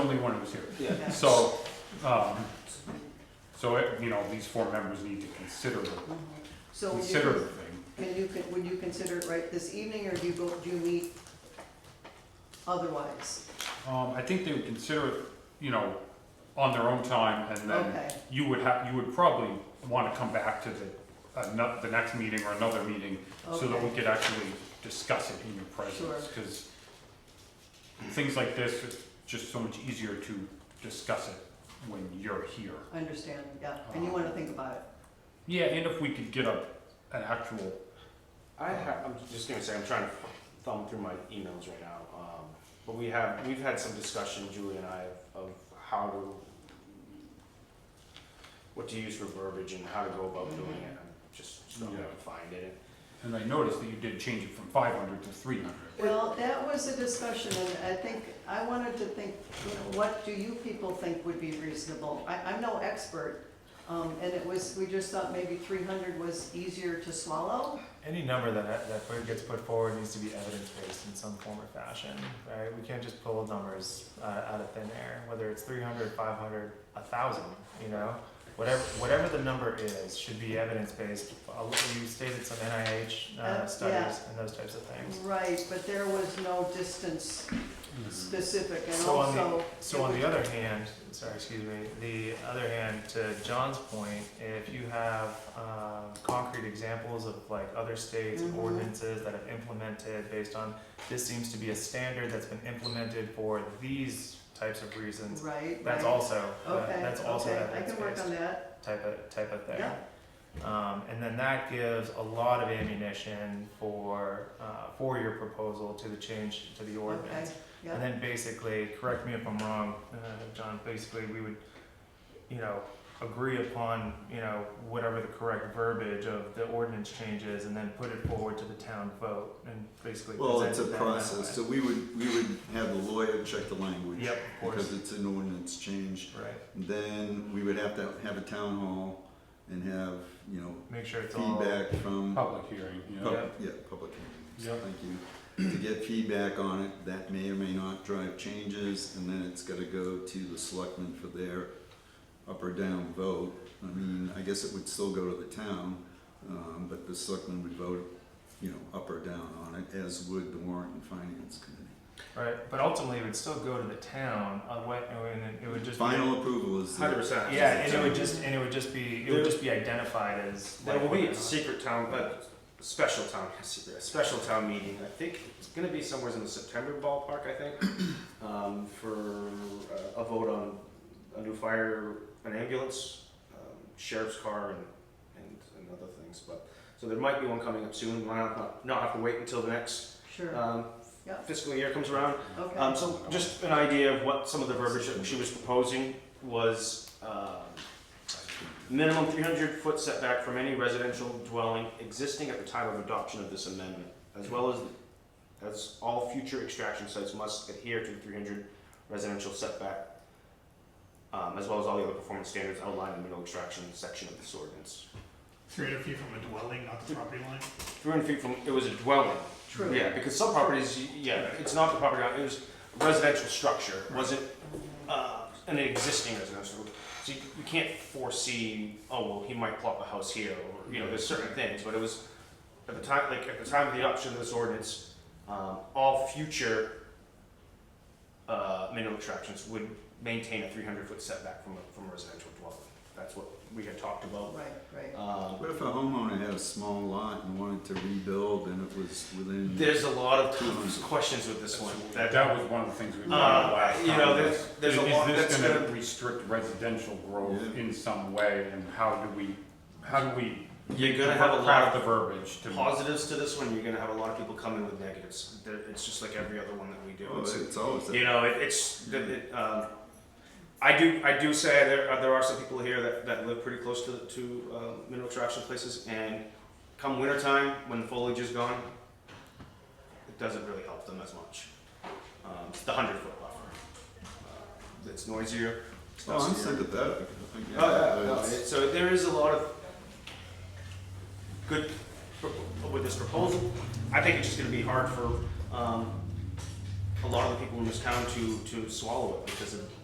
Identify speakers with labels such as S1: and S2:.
S1: only one who was here.
S2: Yeah.
S1: So, um, so, it- you know, these four members need to consider,
S3: So would
S1: consider
S3: you,
S1: the thing.
S3: can you, con- would you consider it right this evening, or do you go, do you meet otherwise?
S1: Um, I think they would consider it, you know, on their own time, and then
S3: Okay,
S1: you would have, you would probably wanna come back to the, ano- the next meeting or another meeting, so that we
S3: okay,
S1: could actually discuss it in your presence,
S3: Sure.
S1: cause things like this, it's just so much easier to discuss it when you're here.
S3: I understand, yeah, and
S1: Uh-huh.
S3: you wanna think about it.
S1: Yeah, and if we could get a, an actual,
S2: I ha I'm just gonna say, I'm trying to thumb through my emails right now, um, but we have, we've had some discussion, Julie and I, of how to, what to use for verbiage and how to go about doing it, I'm just struggling
S1: Yeah.
S2: to find it.
S1: and I noticed that you did change it from five hundred to three hundred.
S3: Well, that was a discussion, and I think, I wanted to think, you know, what do you people think would be reasonable? I, I'm no expert, um, and it was, we just thought maybe three hundred was easier to swallow.
S4: Any number that that put- gets put forward needs to be evidence based in some form or fashion, right? We can't just pull numbers uh, out of thin air, whether it's 300, 500, 1,000, you know? Whatever, whatever the number is, should be evidence based. You stated some NIH
S3: Uh,
S4: uh, studies and those types of things.
S3: Right, but there was no distance
S1: Mm-hmm.
S3: Mm-hmm. specific, and
S4: So on the-
S3: also.
S4: So on the other hand, sorry, excuse me, the other hand, to John's point, if you have um, concrete examples of like other states and
S3: Mhm.
S4: ordinances that have implemented based on, this seems to be a standard that's been implemented for these types of reasons,
S3: Right,
S4: that's
S3: right.
S4: also, uh,
S3: Okay,
S4: that's also
S3: okay, I can work
S4: evidence-based
S3: on that,
S4: type of, type of thing.
S3: Yeah.
S4: Um, and then that gives a lot of ammunition for, uh, for your proposal to the change to the ordinance. And
S3: yeah,
S4: then basically, correct me if I'm wrong, uh, John, basically we would, you know, agree upon, you know, whatever the correct verbiage of the ordinance changes and then put it forward to the town vote and basically
S5: Well,
S4: present
S5: it's a
S4: it that
S5: process, so
S4: way.
S5: we would, we would have the lawyer check the language.
S4: Yep, of
S5: Because
S4: course,
S5: it's an ordinance change.
S4: right.
S5: Then we would have to have a town hall and have, you know,
S4: Make sure it's all.
S5: feedback from,
S1: Public hearing, you know.
S5: pub-
S4: Yep.
S5: yeah, public
S1: Yep.
S5: hearings, thank you. To get feedback on it, that may or may not drive changes, and then it's gotta go to the selectmen for their up or down vote. I mean, I guess it would still go to the town, um, but the selectmen would vote, you know, up or down on it, as would the warrant and finance committee.
S4: Right, but ultimately it would still go to the town, uh, what, and then it would just. be-
S5: Final approval is
S2: Hundred
S5: the,
S2: percent.
S4: Yeah, and it would just, and it would just be, it would just be identified as.
S2: There
S4: like
S2: will be
S4: what-
S2: a secret town, but special town, secret, a special town meeting, I think it's gonna be somewhere in the September ballpark, I think, um, for uh, a vote on a new fire, an ambulance, um, sheriff's car and, and, and other things, but, so there might be one coming up soon, why not, not have to wait until the next,
S3: sure,
S2: um,
S3: Yeah.
S2: fiscal year comes around,
S3: okay,
S2: um, so just an idea of what some of the verbiage that she was proposing was, um, minimum three hundred foot setback from any residential dwelling existing at the time of adoption of this amendment, as well as, as all future extraction sites must adhere to the three hundred residential setback, um, as well as all the other performance standards outlined in the mineral extraction section of this ordinance.
S6: Three hundred feet from a dwelling, not the property line?
S2: Three hundred feet from, it was a dwelling,
S3: true.
S2: yeah, because some properties, y- yeah, it's not the property, line, it was a residential structure, wasn't uh, an existing residential. So you, you can't foresee, oh, well, he might plop a house here, or, you know, there's certain things, but it was, at the time, like, at the time of the adoption of this ordinance, um, all future uh, mineral attractions would maintain a three hundred foot setback from a, from a residential dwelling. That's what we had talked about.
S3: Right, right,
S2: Um,
S5: what if a homeowner had a small lot and wanted to rebuild and it was within?
S2: There's a lot of questions with this one.
S1: That, that was one of the things we
S2: Uh,
S1: brought up last time.
S2: you know,
S1: was,
S2: there's- there's a
S1: is
S2: lot
S1: this
S2: that's gonna-
S1: restrict residential growth
S5: Yeah.
S1: in some way, and how do we, how do we?
S2: You're gonna have a
S1: craft
S2: lot of
S1: the verbiage to.
S5: Mm-hmm.
S2: positives to this one, you're gonna have a lot of people come in with negatives. There- It's just like every other one that we do.
S5: Oh,
S2: It's-
S5: it's always that.
S2: you know, it, it's the- it, um, I do I do say there are, there are some people here that, that live pretty close to to uh, mineral extraction places, and come wintertime when the foliage is gone, it doesn't really help them as much. Um, it's the hundred foot buffer. Uh, it's noisier. It's
S5: Oh, I'm
S2: dustier.
S5: sympathetic. I get
S2: Oh,
S5: it,
S2: yeah,
S5: but
S2: no,
S5: it's-
S2: it- so there is a lot of good pro- with this proposal. I think it's just gonna be hard for, um, a lot of the people in this town to, to swallow it because of